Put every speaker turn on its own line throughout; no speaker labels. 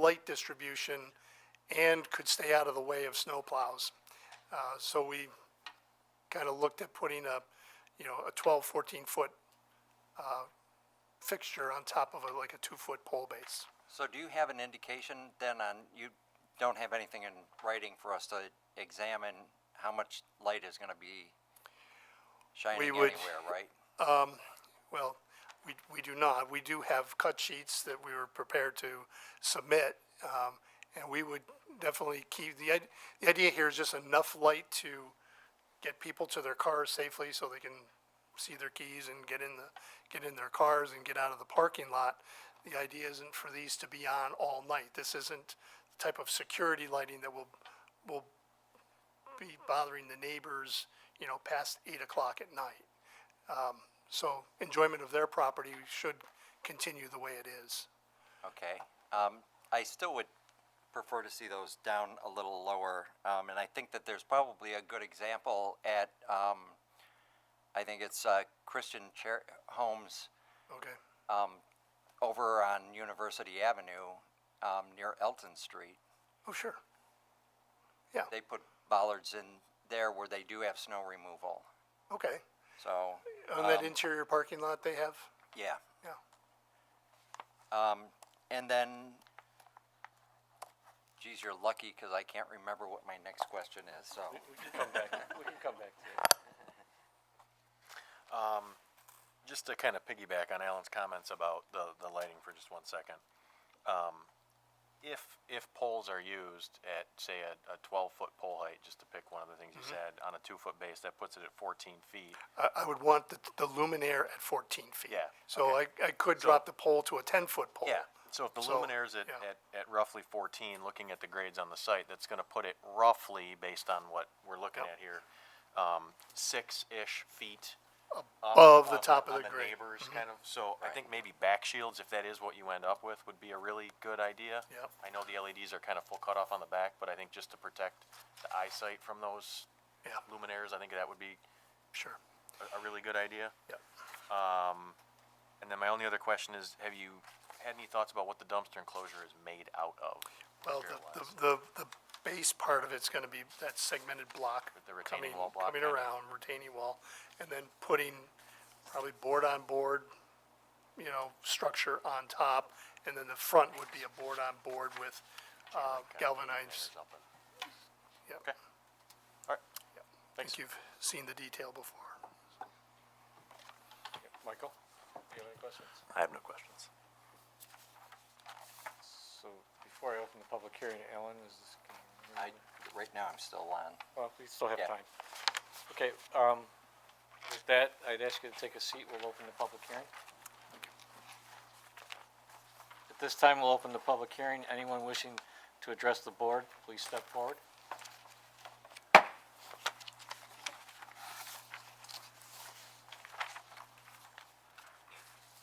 height distribution and could stay out of the way of snowplows. Uh, So we kind of looked at putting a, you know, a 12, 14-foot uh, fixture on top of a- like a two-foot pole base.
So do you have an indication then on, you don't have anything in writing for us to examine how much light is gonna be shining
would-
anywhere, right?
Well, we, we do not. We do have cut sheets that we were prepared to submit. um, And we would definitely keep, the, id- the idea here is just enough light to get people to their cars safely so they can see their keys and get in the, get in their cars and get out of the parking lot. The idea isn't for these to be on all night. This isn't the type of security lighting that will, will be bothering the neighbors, you know, past eight o'clock at night. So enjoyment of their property should continue the way it is.
Okay, um, I still would prefer to see those down a little lower, um, and I think that there's probably a good example at, um, I think it's, uh, Christian Chair, Homes,
Okay,
um, over on University Avenue, um, near Elton Street.
oh, sure.
They put bollards in there where they do have snow removal,
Okay,
so,
on
Um,
that interior parking lot they have?
yeah.
Yeah,
Um, and then, geez, you're lucky, cause I can't remember what my next question is, so.
We can come back, we can come back to it. Just to kind of piggyback on Alan's comments about the, the lighting for just one second. Um, If, if poles are used at, say, a, a twelve-foot pole height, just to pick one of the things you said, on a two-foot base, that puts it at fourteen feet.
I, I would want the, the luminaire at fourteen feet.
Yeah,
So I, I could drop the pole to a ten-foot pole.
So if the
So,
luminaire's at,
yeah.
at, at roughly fourteen, looking at the grades on the site, that's gonna put it roughly, based on what we're looking
Yep.
at here, um, six-ish feet. up
above the
on
top of
on
the grade. Mm-hmm.
Neighbors, kind of, so
Right.
I think maybe back shields, if that is what you end up with, would be a really good idea.
Yep.
I know the LEDs are kind of full cutoff on the back, but I think just to protect the eyesight from those
Yeah,
luminaires, I think that would be
sure,
a, a really good idea.
yeah.
And then my only other question is, have you had any thoughts about what the dumpster enclosure is made out of?
Well, the, the, the, the base part of it's gonna be that segmented block.
The retaining
coming-
wall block
Coming
kind of.
around, retaining wall, and then putting probably board-on-board, you know, structure on top. And then the front would be a board-on-board with, uh, galvanized, yeah.
Okay. All right.
I think you've seen the detail before.
Michael, do you have any questions?
I have no questions.
So before I open the public hearing, Ellen, is this? can you
I,
remember?
right now, I'm still on.
Well, we still have
yeah.
time. Okay, um, with that, I'd ask you to take a seat. We'll open the public hearing. At this time, we'll open the public hearing. Anyone wishing to address the board, please step forward.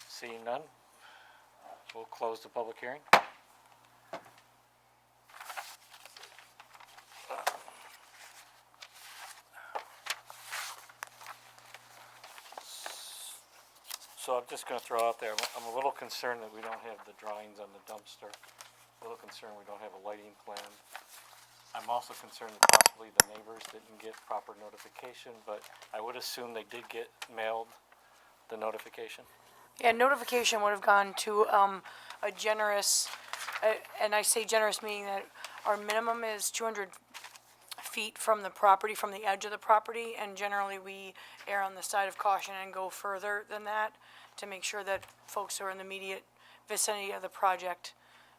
Seeing none, we'll close the public hearing. So I'm just gonna throw out there, I'm- I'm a little concerned that we don't have the drawings on the dumpster. A little concerned we don't have a lighting plan. I'm also concerned that possibly the neighbors didn't get proper notification, but I would assume they did get mailed the notification.
Yeah, notification would have gone to, um, a generous, uh, and I say generous meaning that our minimum is two hundred feet from the property, from the edge of the property, and generally we err on the side of caution and go further than that to make sure that folks who are in the immediate vicinity of the project,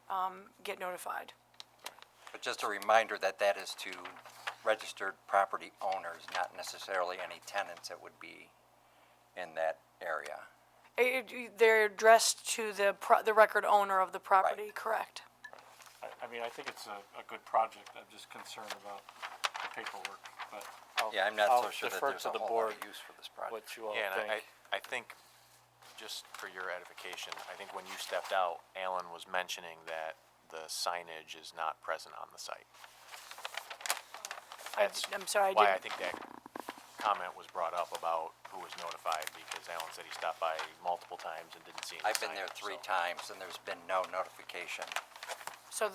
um, get notified.
But just a reminder that that is to registered property owners, not necessarily any tenants that would be in that area.
It- it- they're addressed to the pro- the record owner of the property, correct?
I, I mean, I think it's a, a good project, I'm just concerned about the paperwork, but I'll.
Yeah, I'm not so
I'll
sure that
defer
there's
to
a
the
whole lot
board
of use for this project.
What you all
Yeah, and I,
think.
I- I think, just for your edification, I think when you stepped out, Alan was mentioning that the signage is not present on the site.
I-
That's
I'm sorry, I didn't.
Why I think that comment was brought up about who was notified, because Alan said he stopped by multiple times and didn't see any
I've been there
signage,
three
so-
times and there's been no notification.